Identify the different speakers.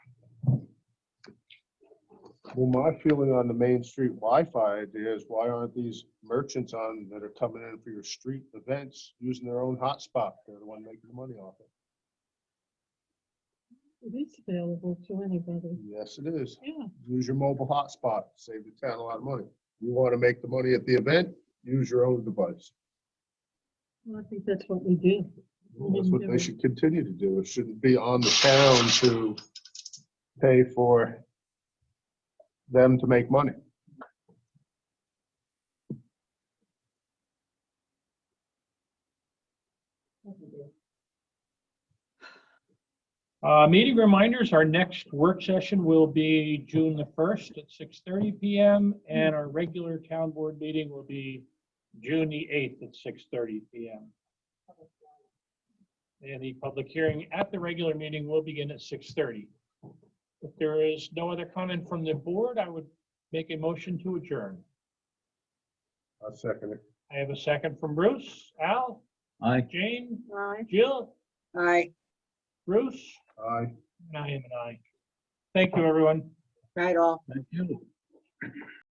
Speaker 1: Well, my feeling on the Main Street Wi-Fi idea is why aren't these merchants on that are coming in for your street events using their own hotspot? They're the one making the money off it.
Speaker 2: It is available to anybody.
Speaker 1: Yes, it is.
Speaker 2: Yeah,
Speaker 1: Use your mobile hotspot, save the town a lot of money. You want to make the money at the event, use your own device.
Speaker 2: well, I think that's what we do.
Speaker 1: Well, That's what they should continue to do. It shouldn't be on the town to pay for them to make money.
Speaker 3: Uh, meeting reminders, our next work session will be June the first at six thirty PM, and our regular town board meeting will be June the eighth at six thirty PM. And the public hearing at the regular meeting will begin at six thirty. If there is no other comment from the board, I would make a motion to adjourn.
Speaker 1: I second it.
Speaker 3: I have a second from Bruce, Al,
Speaker 4: Aye.
Speaker 3: Jane,
Speaker 2: Aye.
Speaker 3: Jill,
Speaker 5: Aye,
Speaker 3: Bruce,
Speaker 1: Aye.
Speaker 3: and I am an aye. Thank you, everyone.
Speaker 5: right all.
Speaker 4: Thank you.